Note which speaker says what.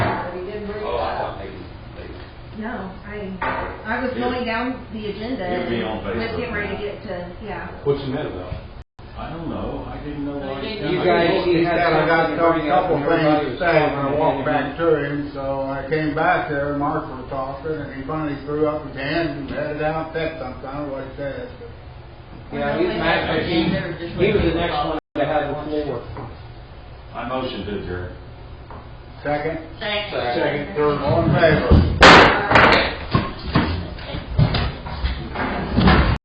Speaker 1: No, I, I was going down the agenda.
Speaker 2: You'll be on
Speaker 1: and Was getting
Speaker 2: Facebook
Speaker 1: ready to get
Speaker 2: now.
Speaker 1: to, yeah.
Speaker 3: What's the matter though?
Speaker 2: I don't know, I didn't know why.
Speaker 4: You
Speaker 2: I-
Speaker 4: guys- you
Speaker 5: He said I got a couple- couple things to say when I walked back to him, so I came back there, and Mark was talking, and he finally threw up his hand and headed out, that something, I don't know what he said.
Speaker 4: Yeah, he's mad because he, he was the next one to have the floor.
Speaker 2: I motioned to adjourn.
Speaker 5: Second,
Speaker 4: Thanks.
Speaker 5: all in favor?
Speaker 1: Uh,